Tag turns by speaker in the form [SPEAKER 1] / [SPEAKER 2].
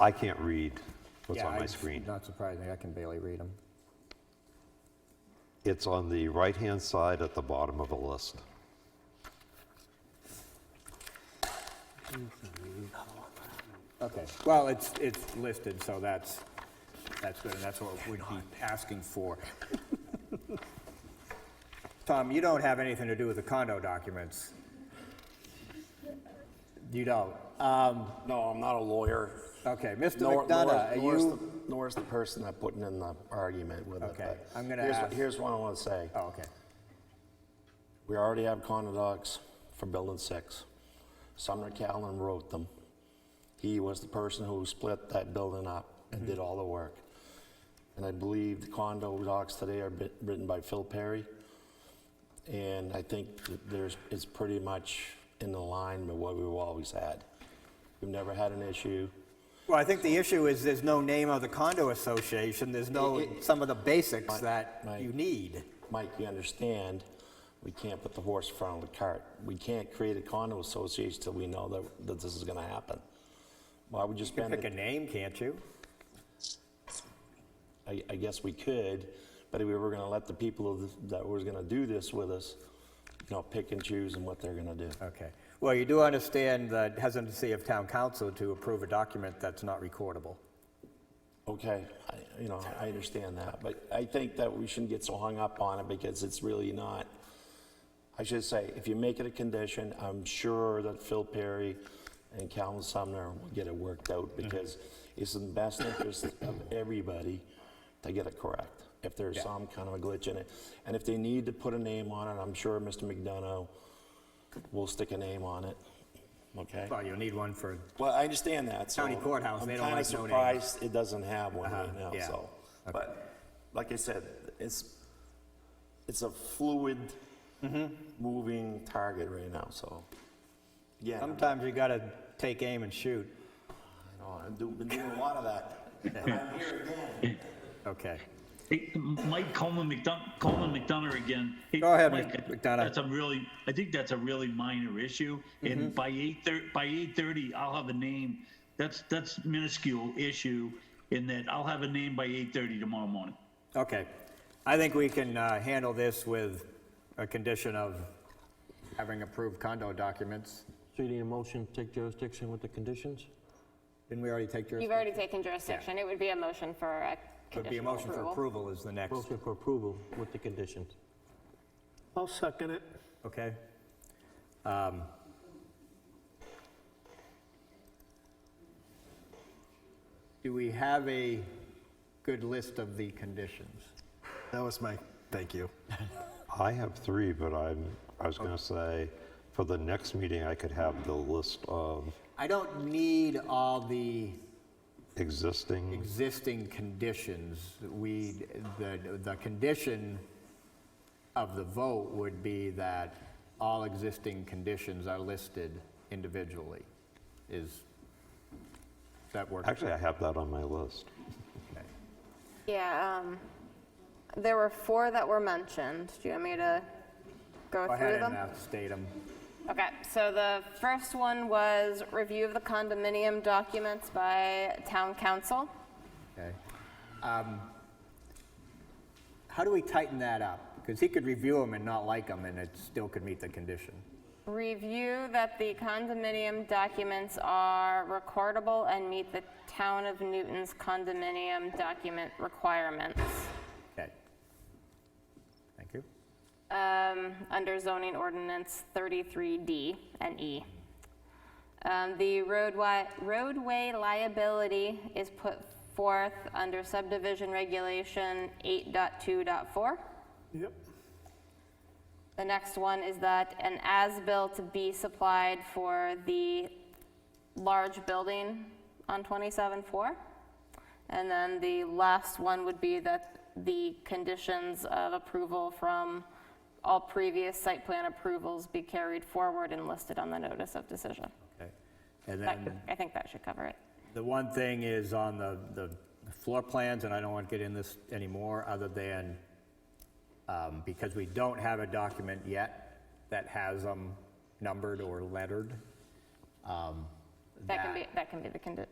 [SPEAKER 1] I can't read what's
[SPEAKER 2] Yeah,
[SPEAKER 1] on my
[SPEAKER 2] it's
[SPEAKER 1] screen.
[SPEAKER 2] Not surprising, I can barely read them.
[SPEAKER 1] It's on the right-hand side at the bottom of the list.
[SPEAKER 2] Okay, well, it's, it's listed, so that's, that's good, and that's what we'd be asking for. Tom, you don't have anything to do with the condo documents. You don't. Um,
[SPEAKER 3] No, I'm not a lawyer.
[SPEAKER 2] Okay, Mr.
[SPEAKER 3] Nor-
[SPEAKER 2] McDonough, are
[SPEAKER 3] nor is- nor is
[SPEAKER 2] you,
[SPEAKER 3] the- Nor is the person that putting in the argument with it.
[SPEAKER 2] Okay,
[SPEAKER 3] but
[SPEAKER 2] I'm gonna
[SPEAKER 3] here's what-
[SPEAKER 2] ask-
[SPEAKER 3] Here's what I want to say.
[SPEAKER 2] oh, okay,
[SPEAKER 3] We already have condo docs for Building 6. Sumner Callan wrote them. He was the person who split that building up
[SPEAKER 2] Mm-hmm.
[SPEAKER 3] and did all the work. And I believe the condo docs today are bit- written by Phil Perry. And I think that there's, it's pretty much in the line with what we've always had. We've never had an issue.
[SPEAKER 2] well, I think the issue is there's no name of the condo association, there's no, some of the basics that
[SPEAKER 3] right.
[SPEAKER 2] you need.
[SPEAKER 3] Mike, you understand, we can't put the horse in front of the cart. We can't create a condo association till we know that, that this is gonna happen. Why would you spend,
[SPEAKER 2] Pick a
[SPEAKER 3] the-
[SPEAKER 2] name, can't you?
[SPEAKER 3] I, I guess we could, but if we were gonna let the people of- that was gonna do this with us, you know, pick and choose and what they're gonna do.
[SPEAKER 2] Okay. Well, you do understand the hesitancy of town council to approve a document that's not recordable.
[SPEAKER 3] Okay, I, you know, I understand that, but I think that we shouldn't get so hung up on it because it's really not. I should say, if you make it a condition, I'm sure that Phil Perry and Calvin Sumner will get it worked out because it's in the best interest of everybody to get it correct. If there's some kind of a glitch in it, and if they need to put a name on it, I'm sure Mr. McDonough will stick a name on it, okay?
[SPEAKER 2] Well, you'll need one for,
[SPEAKER 3] Well, I understand that, so.
[SPEAKER 2] County courthouse, they don't like no names.
[SPEAKER 3] I'm kind of surprised it doesn't have one right
[SPEAKER 2] Uh-huh,
[SPEAKER 3] now,
[SPEAKER 2] yeah.
[SPEAKER 3] so. But, like I said, it's, it's a fluid,
[SPEAKER 2] Mm-hmm.
[SPEAKER 3] moving target right now, so. Yeah, I
[SPEAKER 2] sometimes you gotta take aim and shoot.
[SPEAKER 3] know, I've do- been doing a lot of that. And I'm here again.
[SPEAKER 2] Okay.
[SPEAKER 4] Hey, Mike Coleman McDonough, Coleman McDonough again. Hey,
[SPEAKER 2] Go ahead,
[SPEAKER 4] Mike,
[SPEAKER 2] Mc- McDonough.
[SPEAKER 4] That's a really, I think that's a really minor issue.
[SPEAKER 2] Mm-hmm.
[SPEAKER 4] And by eight thirty, by eight thirty, I'll have a name. That's, that's minuscule issue in that I'll have a name by eight thirty tomorrow morning.
[SPEAKER 2] Okay. I think we can uh, handle this with a condition of having approved condo documents.
[SPEAKER 5] So you need a motion to take jurisdiction with the conditions?
[SPEAKER 2] Didn't we already take
[SPEAKER 6] You've
[SPEAKER 2] jurisdiction?
[SPEAKER 6] already taken jurisdiction. It would be a motion for a
[SPEAKER 2] Would be a
[SPEAKER 6] conditional
[SPEAKER 2] motion for
[SPEAKER 6] approval.
[SPEAKER 2] approval is the next,
[SPEAKER 5] Motion for approval with the conditions.
[SPEAKER 7] I'll second it.
[SPEAKER 2] okay? Um, Do we have a good list of the conditions?
[SPEAKER 7] That was my, thank you.
[SPEAKER 1] I have three, but I'm, I was gonna say, for the next meeting, I could have the list of
[SPEAKER 2] I don't need all the
[SPEAKER 1] existing,
[SPEAKER 2] existing conditions. We, the, the condition of the vote would be that all existing conditions are listed individually. Is, that work?
[SPEAKER 1] actually, I have that on my list.
[SPEAKER 6] Yeah, um, there were four that were mentioned. Do you want me to
[SPEAKER 2] Go
[SPEAKER 6] go through
[SPEAKER 2] ahead
[SPEAKER 6] them?
[SPEAKER 2] and uh, state them.
[SPEAKER 6] Okay, so the first one was review of the condominium documents by town council.
[SPEAKER 2] Okay. Um, How do we tighten that up? Because he could review them and not like them, and it still could meet the condition.
[SPEAKER 6] Review that the condominium documents are recordable and meet the town of Newton's condominium document requirements.
[SPEAKER 2] Okay. Thank you.
[SPEAKER 6] um, under zoning ordinance 33D and E. Um, The roadway, roadway liability is put forth under subdivision regulation 8.2.4.
[SPEAKER 7] Yep.
[SPEAKER 6] The next one is that an as-built be supplied for the large building on 27-4. And then the last one would be that the conditions of approval from all previous site plan approvals be carried forward and listed on the notice of decision.
[SPEAKER 2] Okay. And
[SPEAKER 6] That-
[SPEAKER 2] then
[SPEAKER 6] I think that should cover it.
[SPEAKER 2] The one thing is on the, the floor plans, and I don't want to get in this anymore, other than, um, because we don't have a document yet that has them numbered or lettered. um,
[SPEAKER 6] That can be, that can be the condition.